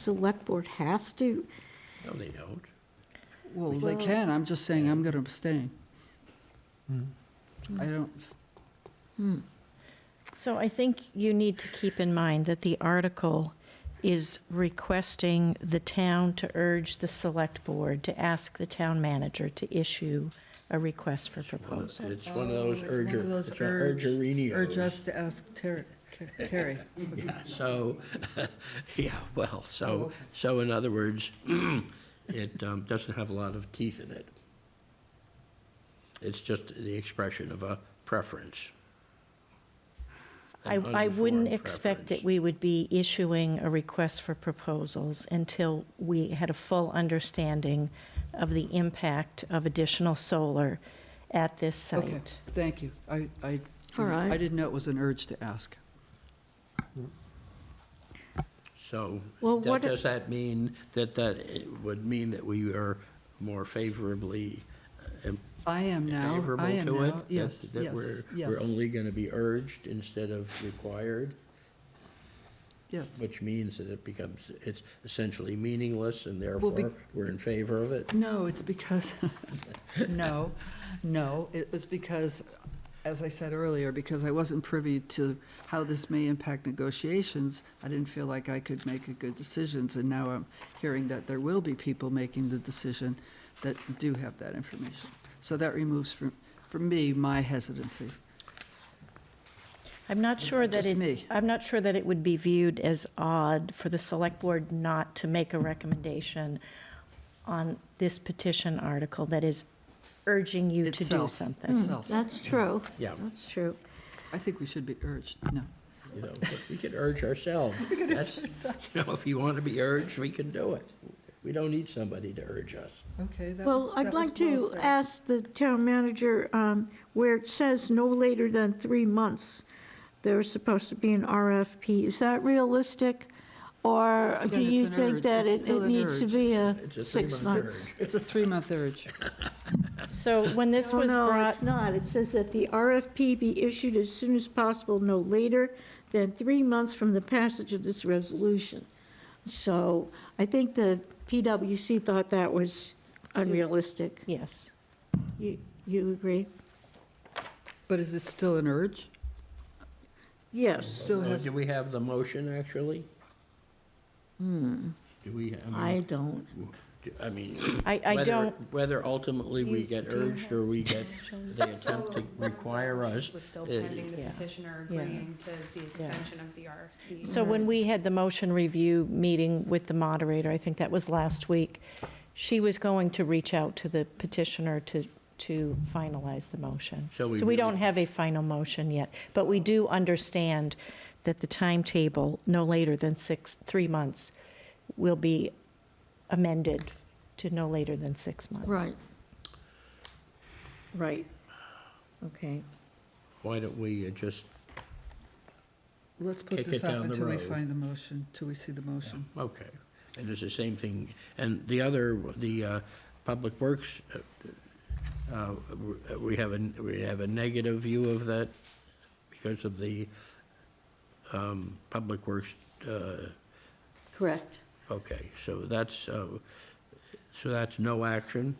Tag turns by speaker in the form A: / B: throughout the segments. A: select board has to,
B: No, they don't.
C: Well, they
A: Well-
C: can, I'm just saying I'm gonna abstain.
A: Hmm.
C: I don't,
D: So I think you need to keep in mind that the article is requesting the town to urge the select board to ask the town manager to issue a request for proposal.
B: It's one of those
C: it's one of
B: urger,
C: those
B: it's an
C: urge, urge
B: urgerinios.
C: us to ask Terry, Ca- Terry.
B: Yeah, so, yeah, well, so, so in other words, it um, doesn't have a lot of teeth in it. It's just the expression of a preference.
D: I,
B: An
D: I wouldn't
B: uninformed
D: expect that
B: preference.
D: we would be issuing a request for proposals until we had a full understanding of the impact of additional solar at this
C: Okay,
D: site.
C: thank you. I, I,
A: All right.
C: I didn't know it was an urge to ask.
B: So,
A: Well,
B: that-
A: what it-
B: does that mean, that that it would mean that we are more favorably uh,
C: I am now, I
B: favorable
C: am
B: to it?
C: now,
B: that-
C: yes,
B: That
C: yes,
B: we're, we're
C: yes,
B: only going to be urged instead of required?
C: yes.
B: Which means that it becomes, it's essentially meaningless, and
C: Well, be-
B: therefore, we're in favor of it.
C: No, it's because, no, no, it was because, as I said earlier, because I wasn't privy to how this may impact negotiations, I didn't feel like I could make a good decisions, and now I'm hearing that there will be people making the decision that do have that information. So that removes from, from me, my hesitancy.
D: I'm not sure that
C: Just
D: it,
C: me.
D: I'm not sure that it would be viewed as odd for the select board not to make a recommendation on this petition article that is urging you to do
C: Itself.
D: something. Mm,
C: Itself.
A: that's true.
B: Yeah.
A: That's true.
C: I think we should be urged, no.
B: You know, but we could urge ourselves. We could urge ourselves. You know, if you want to be urged, we can do it. We don't need somebody to urge us.
C: Okay, that
A: Well,
C: was,
A: I'd like to ask the town manager, um, where it says no later than three months, there's supposed to be an RFP. Is that realistic? Or do
C: it's
A: you
C: an
A: think
C: urge.
A: that
C: It's
A: it
C: still
A: it
C: an
A: needs to
C: urge.
A: be a
B: It's a
A: six
B: three-month
A: months?
C: It's a three-month urge.
D: So when this
A: No,
D: was
A: No,
D: brought,
A: it's not. It says that the RFP be issued as soon as possible, no later than three months from the passage of this resolution. So I think the PWC thought that was unrealistic.
D: yes,
A: You, you agree?
C: But is it still an urge?
A: Yes,
C: Still
B: Uh,
C: has,
B: Do we have the motion, actually?
D: Hmm.
B: Do we, I
A: I
B: mean,
A: don't.
B: do- I mean.
D: I, I
B: whether-
D: don't,
B: Whether ultimately we get urged or we get, they attempt to require us.
E: Was still
B: uh,
E: pending the
D: Yeah.
E: petitioner
D: Yeah.
E: agreeing to the extension of the RFP.
D: so when we had the motion review meeting with the moderator, I think that was last week, she was going to reach out to the petitioner to, to finalize the motion.
B: So we
D: So we
B: really-
D: don't have a final motion yet, but we do understand that the timetable, no later than six, three months, will be amended to no later than six months.
A: Right. Right. Okay.
B: Why don't we uh, just,
C: let's put
B: Kick
C: this
B: it
C: off
B: down the
C: until we
B: road.
C: find the motion, till we see the motion.
B: okay, and it's the same thing. And the other, the uh, Public Works, uh, uh, we have a, we have a negative view of that because of the um, Public Works, uh,
A: Correct.
B: okay, so that's, uh, so that's no action,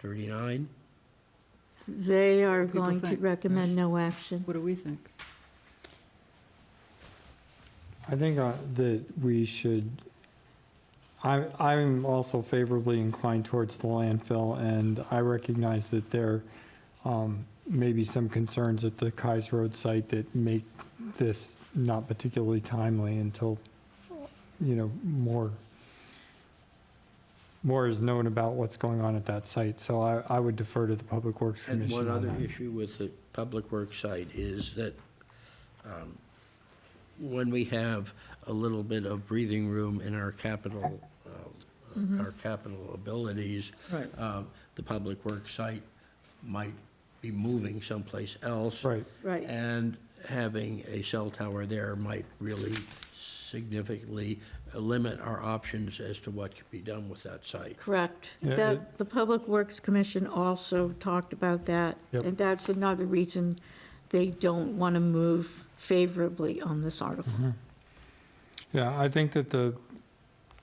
B: 39?
A: They are
C: People
A: going to
C: think, yeah.
A: recommend no action.
C: What do we think?
F: I think uh, that we should, I, I'm also favorably inclined towards the landfill, and I recognize that there um, may be some concerns at the Kais Road site that make this not particularly timely until, you know, more, more is known about what's going on at that site. So I, I would defer to the Public Works
B: And
F: Commission on
B: one other
F: that.
B: issue with the public works site is that um, when we have a little bit of breathing room in our capital, um, our capital abilities,
A: Right.
B: um, the public works site might be moving someplace else.
F: Right.
A: Right.
B: And having a cell tower there might really significantly limit our options as to what could be done with that site.
A: Correct.
F: Yeah,
A: That,
F: it-
A: the Public Works Commission also talked about that.
F: Yep.
A: And that's another reason they don't want to move favorably on this article.
F: Yeah, I think that the